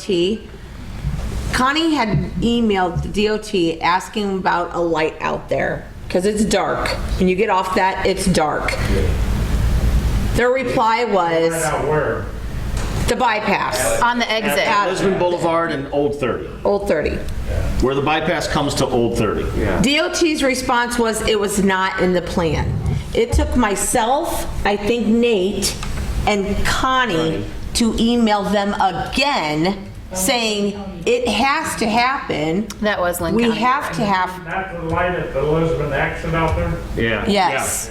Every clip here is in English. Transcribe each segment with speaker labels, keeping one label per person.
Speaker 1: DOT. Connie had emailed the DOT asking about a light out there, because it's dark. When you get off that, it's dark. Their reply was
Speaker 2: Out where?
Speaker 1: the bypass,
Speaker 3: On the exit.
Speaker 1: Out.
Speaker 4: Lisbon Boulevard and Old 30,
Speaker 1: Old 30.
Speaker 4: where the bypass comes to Old 30.
Speaker 1: DOT's response was it was not in the plan. It took myself, I think Nate, and Connie to email them again saying it has to happen.
Speaker 3: That was Lynn
Speaker 1: We
Speaker 3: County.
Speaker 1: have to have
Speaker 2: Not the light at the Lisbon exit out there?
Speaker 4: Yeah.
Speaker 1: Yes.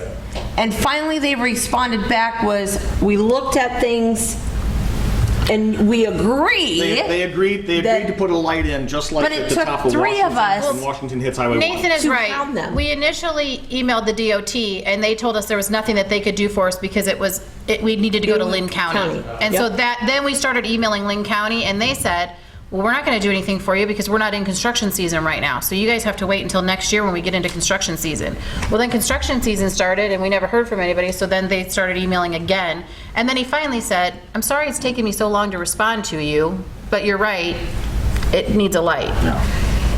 Speaker 1: And finally, they responded back was, we looked at things and we
Speaker 4: They, they
Speaker 1: agree
Speaker 4: agreed, they
Speaker 1: That-
Speaker 4: agreed to put a light in, just like
Speaker 1: But it
Speaker 4: at the
Speaker 1: took
Speaker 4: top of
Speaker 1: three of us-
Speaker 4: Washington, when Washington hits Highway 1.
Speaker 3: Nathan is
Speaker 1: to hound
Speaker 3: right.
Speaker 1: them.
Speaker 3: We initially emailed the DOT and they told us there was nothing that they could do for us because it was, it, we needed to go to Lynn County.
Speaker 1: County,
Speaker 3: And so
Speaker 1: yep.
Speaker 3: that, then we started emailing Lynn County and they said, well, we're not gonna do anything for you because we're not in construction season right now. So you guys have to wait until next year when we get into construction season. Well, then construction season started and we never heard from anybody, so then they started emailing again. And then he finally said, I'm sorry it's taken me so long to respond to you, but you're right, it needs a light.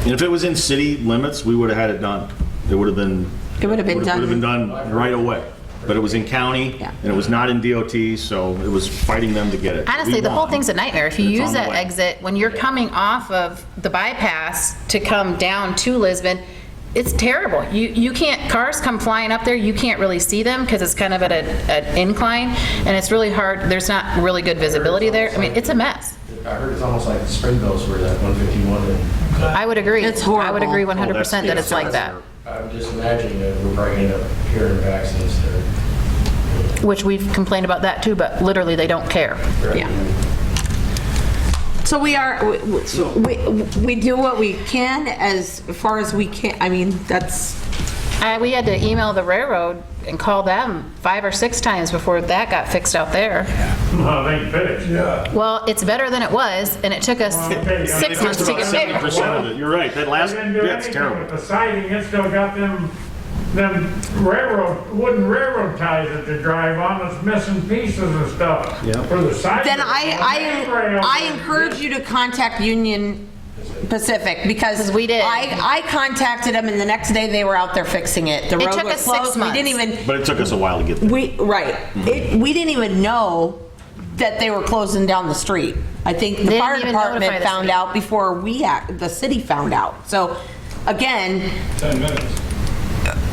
Speaker 4: And if it was in city limits, we would have had it done. It would have been.
Speaker 1: It would've been
Speaker 4: Would have been done right away. But it was in county,
Speaker 1: Yeah.
Speaker 4: and it was not in DOT, so it was fighting them to get it.
Speaker 3: Honestly,
Speaker 4: We
Speaker 3: the whole
Speaker 4: won.
Speaker 3: thing's a nightmare. If you
Speaker 4: It's
Speaker 3: use
Speaker 4: on the
Speaker 3: that
Speaker 4: way.
Speaker 3: exit, when you're coming off of the bypass to come down to Lisbon, it's terrible. You, you can't, cars come flying up there, you can't really see them because it's kind of at a, an incline and it's really hard, there's not really good visibility there. I mean, it's a mess.
Speaker 5: I heard it's almost like Springville's where that 151, and
Speaker 3: I would agree.
Speaker 1: It's
Speaker 3: I would
Speaker 1: horrible.
Speaker 3: agree
Speaker 4: Oh,
Speaker 3: 100%
Speaker 4: that's-
Speaker 3: that it's
Speaker 4: yeah,
Speaker 3: like that,
Speaker 4: that's-
Speaker 5: I would just imagine that we're probably going to hear of accidents there.
Speaker 3: which we've complained about that too, but literally they don't care.
Speaker 1: Yeah. So we are, we- we, we do what we can as far as we can, I mean, that's,
Speaker 3: Uh, we had to email the railroad and call them five or six times before that got fixed out there.
Speaker 2: No, they finished. Yeah.
Speaker 3: Well, it's better than it was, and it took us
Speaker 2: okay, yeah,
Speaker 3: six
Speaker 2: it's
Speaker 3: months to
Speaker 4: About
Speaker 3: get
Speaker 4: 70%
Speaker 3: there.
Speaker 4: of it. You're right, that last,
Speaker 2: They didn't do
Speaker 4: bit's
Speaker 2: anything
Speaker 4: terrible.
Speaker 2: with the siding, it's still got them, them railroad, wooden railroad ties that they drive on, it's missing pieces and stuff. Yeah. For the siding.
Speaker 1: then I, I,
Speaker 2: Rail.
Speaker 1: I encourage you to contact Union Pacific because.
Speaker 3: we did.
Speaker 1: I, I contacted them and the next day they were out there fixing it. The road
Speaker 3: took
Speaker 1: was
Speaker 3: us six
Speaker 1: closed.
Speaker 3: months.
Speaker 1: We didn't even,
Speaker 4: But it took us a while to get there.
Speaker 1: We, right. It, we didn't even know that they were closing down the street. I think the
Speaker 3: didn't
Speaker 1: fire
Speaker 3: even notify
Speaker 1: department
Speaker 3: the
Speaker 1: found
Speaker 3: city.
Speaker 1: out before we, act- the city found out. So again,
Speaker 2: 10 minutes.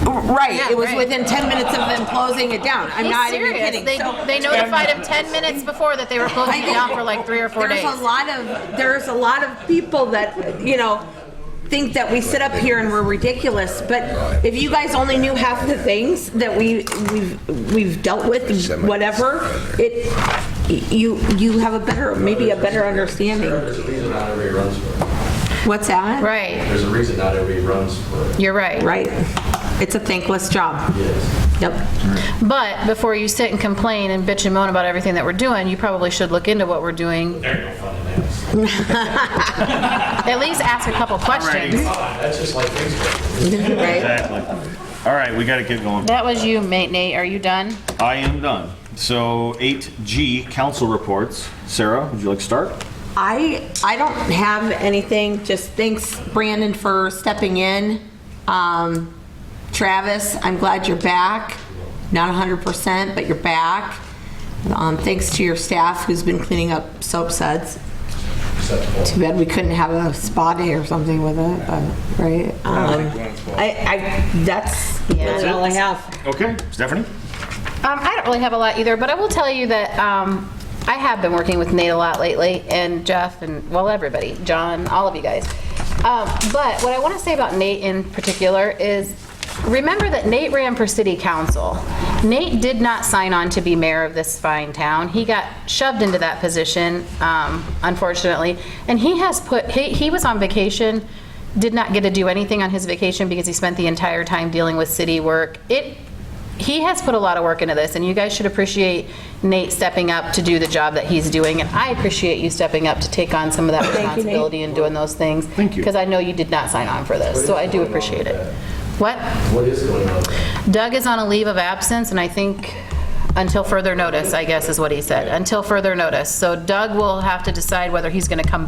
Speaker 1: right,
Speaker 3: Yeah,
Speaker 1: it was
Speaker 3: right.
Speaker 1: within 10 minutes of them closing it down. I'm
Speaker 3: He's
Speaker 1: not even
Speaker 3: serious.
Speaker 1: kidding.
Speaker 3: They,
Speaker 1: So
Speaker 3: they notified him 10 minutes before that they were closing it down for like three or four
Speaker 1: There's
Speaker 3: days.
Speaker 1: a lot of, there's a lot of people that, you know, think that we sit up here and we're ridiculous, but if you guys only knew half the things that we, we've, we've dealt with, whatever, it, you, you have a better, maybe a better understanding.
Speaker 5: There's a reason not everybody runs for it.
Speaker 1: What's that?
Speaker 3: Right,
Speaker 5: There's a reason not everybody runs for it.
Speaker 3: you're right.
Speaker 1: Right. It's a thankless job.
Speaker 5: Yes.
Speaker 1: Yep.
Speaker 3: But before you sit and complain and bitch and moan about everything that we're doing, you probably should look into what we're doing.
Speaker 5: There ain't no fun in that.
Speaker 3: At least ask a couple questions.
Speaker 5: That's just like Facebook.
Speaker 1: Right.
Speaker 4: Exactly. All right, we gotta get going.
Speaker 3: That was you, mate Nate. Are you done?
Speaker 4: I am done. So 8G, council reports. Sarah, would you like to start?
Speaker 1: I, I don't have anything, just thanks Brandon for stepping in. Um, Travis, I'm glad you're back. Not 100%, but you're back. Um, thanks to your staff who's been cleaning up soap suds.
Speaker 5: Acceptable.
Speaker 1: Too bad we couldn't have a spa day or something with it, but, right? Um, I, I, that's, that's all I have.
Speaker 4: Okay, Stephanie?
Speaker 3: Um, I don't really have a lot either, but I will tell you that um, I have been working with Nate a lot lately, and Jeff, and well, everybody, John, all of you guys. Um, but what I want to say about Nate in particular is remember that Nate ran for city council. Nate did not sign on to be mayor of this fine town. He got shoved into that position, um, unfortunately, and he has put, he, he was on vacation did not get to do anything on his vacation because he spent the entire time dealing with city work. It he has put a lot of work into this, and you guys should appreciate Nate stepping up to do the job that he's doing, and I appreciate you stepping up to take on some of that responsibility and doing those things.
Speaker 4: you.
Speaker 3: Thank Because I know you did not sign on for this, so I do appreciate it. What?
Speaker 5: What is going on?
Speaker 3: Doug is on a leave of absence, and I think, Until further notice, I guess is what he said. Until further notice. So Doug will have to decide whether he's going to come back.